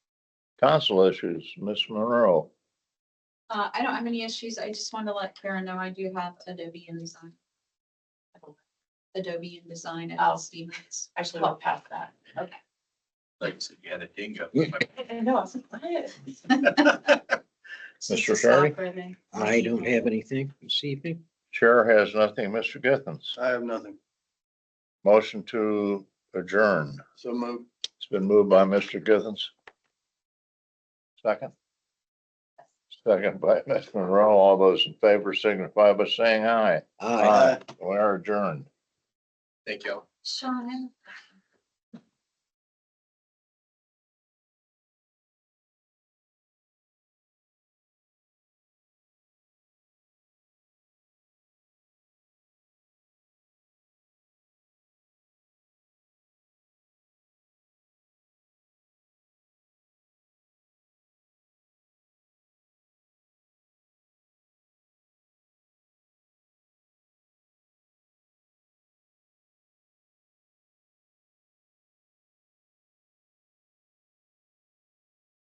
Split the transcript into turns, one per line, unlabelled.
Council issues, Ms. Monroe.
Uh, I don't have any issues. I just wanted to let Karen know I do have Adobe InDesign. Adobe InDesign
Oh.
at Stevens.
Actually, went past that.
Like you said, you had a dingo.
No, I was like, what?
Mr. Sherry?
I don't have anything this evening.
Chair has nothing. Mr. Githens.
I have nothing.
Motion to adjourn.
So move.
It's been moved by Mr. Githens. Second. Second by Ms. Monroe. All those in favor signify by saying aye.
Aye.
We are adjourned.
Thank you.
Sean,